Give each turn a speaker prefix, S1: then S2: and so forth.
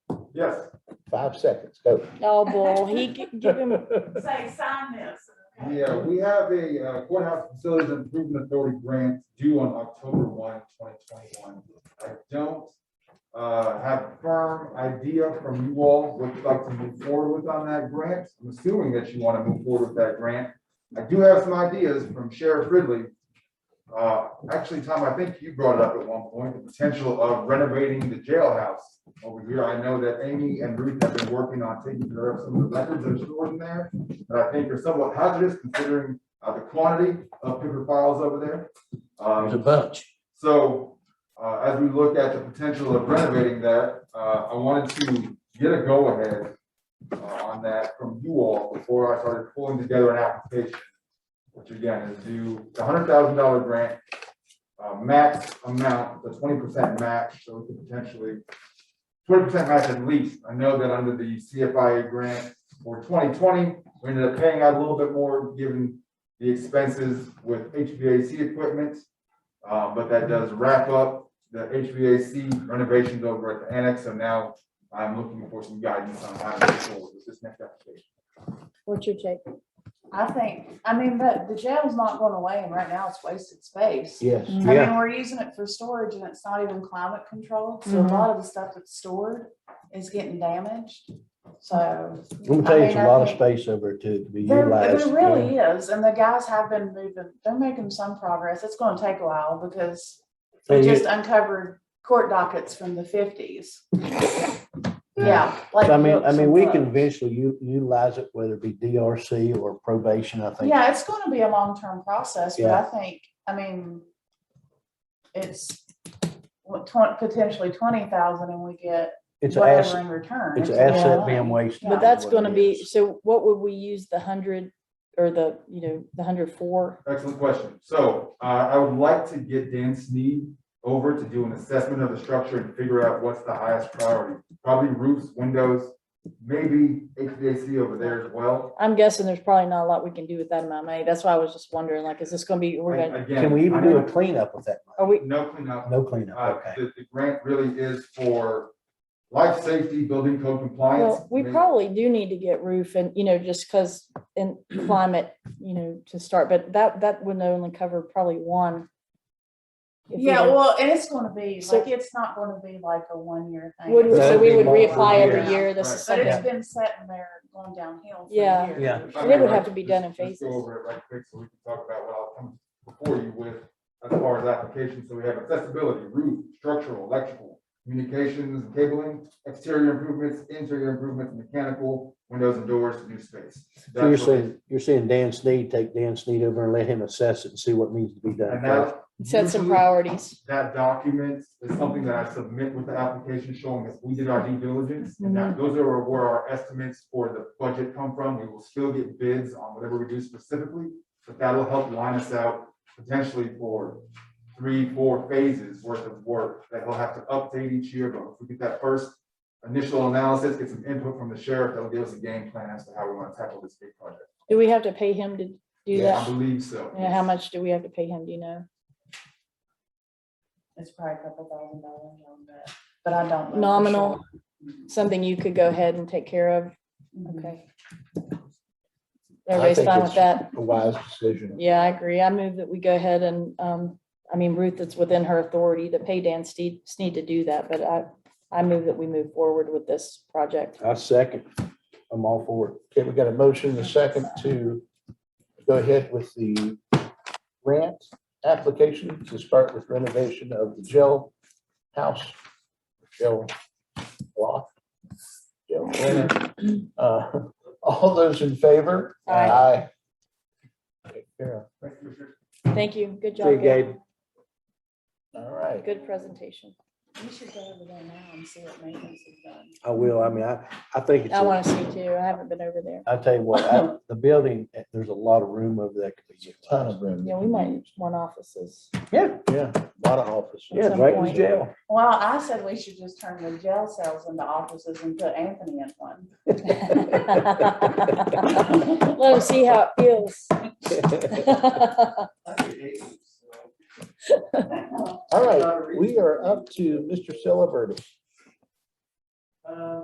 S1: Yes.
S2: Five seconds, go.
S3: Oh, boy, he, g- give him,
S4: Say, sign this.
S1: Yeah, we have a uh, courthouse facilities improvement authority grant due on October 1, 2021. I don't uh, have a firm idea from you all what you'd like to move forward with on that grant. I'm assuming that you want to move forward with that grant. I do have some ideas from Sheriff Ridley. Uh, Actually, Tom, I think you brought it up at one point, the potential of renovating the jailhouse over here. I know that Amy and Ruth have been working on taking care of some of the records that are stored in there that I think are somewhat hazardous considering uh, the quantity of paper files over there.
S2: There's a
S1: Um,
S2: bunch.
S1: So uh, as we look at the potential of renovating that, uh, I wanted to get a go-ahead uh, on that from you all before I started pulling together an application, which again is due a hundred thousand dollar grant, uh, max amount, the twenty percent match, so we could potentially twenty percent match at least. I know that under the CFIA grant for twenty twenty, we ended up paying out a little bit more given the expenses with HVAC equipment. Uh, but that does wrap up the HVAC renovations over at the annex, so now I'm looking for some guidance on how to move forward with this next application.
S3: what's your take?
S4: I think, I mean, but the jail's not going away and right now it's wasted space.
S2: Yes.
S4: I mean, we're using it for storage and it's not even climate controlled, so a
S3: Mhm.
S4: lot of the stuff that's stored is getting damaged, so.
S2: Let me tell you, it's a lot of space over to to be
S4: There,
S2: utilized.
S4: there really is, and the guys have been moving, they're making some progress, it's gonna take a while because we
S2: And you-
S4: just uncovered court dockets from the fifties. Yeah. like
S2: I mean, I
S4: books
S2: mean,
S4: and
S2: we
S4: books.
S2: can eventually u- utilize it, whether it be DRC or probation, I think.
S4: Yeah, it's gonna be a long-term process, but I think, I mean, it's what, twen- potentially twenty thousand and we get
S2: It's an
S4: whatever
S2: asset,
S4: in return.
S2: it's an
S4: a lot of
S2: asset
S4: money.
S2: being wasted.
S4: Yeah.
S3: But that's
S2: is what
S3: gonna
S2: it
S3: be,
S2: is.
S3: so what would we use the hundred or the, you know, the hundred four?
S1: Excellent question. So, uh, I would like to get Dan Sneed over to do an assessment of the structure and figure out what's the highest priority. Probably roofs, windows, maybe HVAC over there as well.
S3: I'm guessing there's probably not a lot we can do with that amount of money. That's why I was just wondering, like, is this gonna be, we're gonna,
S1: Again,
S2: Can we even
S1: I
S2: do a
S1: don't-
S2: cleanup with that?
S3: are we,
S1: No
S4: Oh.
S1: cleanup.
S2: No cleanup,
S1: Uh,
S2: okay.
S1: The, the grant really is for life safety, building code compliance.
S3: well, we
S1: Maybe-
S3: probably do need to get roof and, you know, just cause in climate, you know, to start, but that, that would only cover probably one. If we
S4: Yeah,
S3: did-
S4: well, and it's gonna be,
S3: So-
S4: like, it's not gonna be like a one-year thing.
S3: Would, so
S2: That'd
S3: we
S2: be
S3: would
S2: more than
S3: reapply
S2: a
S3: every
S4: year.
S3: year. This is
S4: But
S3: something.
S4: it's been sitting there going downhill for
S3: Yeah.
S4: years.
S2: Yeah.
S1: If I
S3: And it would
S1: may,
S3: have to be
S1: just-
S3: done in
S1: just go
S3: phases.
S1: over it right quick so we can talk about what I'll come before you with as far as applications. So we have accessibility, roof, structural, electrical, communications, cabling, exterior improvements, interior improvements, mechanical, windows and doors, new space.
S2: So you're
S1: That's what-
S2: saying, you're saying Dan Sneed, take Dan Sneed over and let him assess it and see what needs to be done.
S1: And
S2: first.
S1: that.
S3: Set some
S1: usually
S3: priorities.
S1: That document is something that I submit with the application showing that we did our due diligence. And
S3: Mhm.
S1: that, those are where our estimates for the budget come from. We will still get bids on whatever we do specifically. But that'll help line us out potentially for three, four phases worth of work that he'll have to update each year. But if we get that first initial analysis, get some input from the sheriff, that'll give us a game plan as to how we want to tackle this big project.
S3: Do we have to pay him to do
S1: I
S3: that?
S1: believe so.
S3: You know, how much do we have to pay him? Do you know?
S4: It's probably a couple thousand dollars on that, but I don't. know for
S3: Nominal.
S4: sure.
S3: Something you could go ahead and take care of?
S4: Mhm.
S3: Okay. Everybody's
S2: think
S3: fine with
S2: it's-
S3: that?
S2: A wise decision.
S3: Yeah, I agree. I move that we go ahead and, um, I mean, Ruth, it's within her authority to pay Dan Steed, Sneed to do that, but I, I move that we move forward with this project.
S2: I second. I'm all for it. Okay, we got a motion, and a second to go ahead with the grant application to start with renovation of the jail house, jail block. jail center. Uh, All those in favor?
S3: Aye.
S2: Take care of
S1: Thank you, Commissioner.
S3: Thank you. Good
S2: it. See you,
S3: job. Gabe.
S2: All right,
S3: Good presentation.
S4: You Mm-hmm. should go over there now and see what maintenance is done.
S2: I will. I mean, I, I think it's,
S3: I
S2: a-
S3: want to see too. I haven't been over there.
S2: I tell you what, I- the building, eh, there's a lot of room over there. Ton of room.
S3: Yeah, we might want offices.
S2: Yeah. Yeah, a lot of offices.
S3: Yeah, At some right in point.
S2: jail.
S4: Well, I said we should just turn the jail cells into offices and put Anthony in one.
S3: Let him see how it feels.
S2: All right, we are up to Mr. Ciliberti.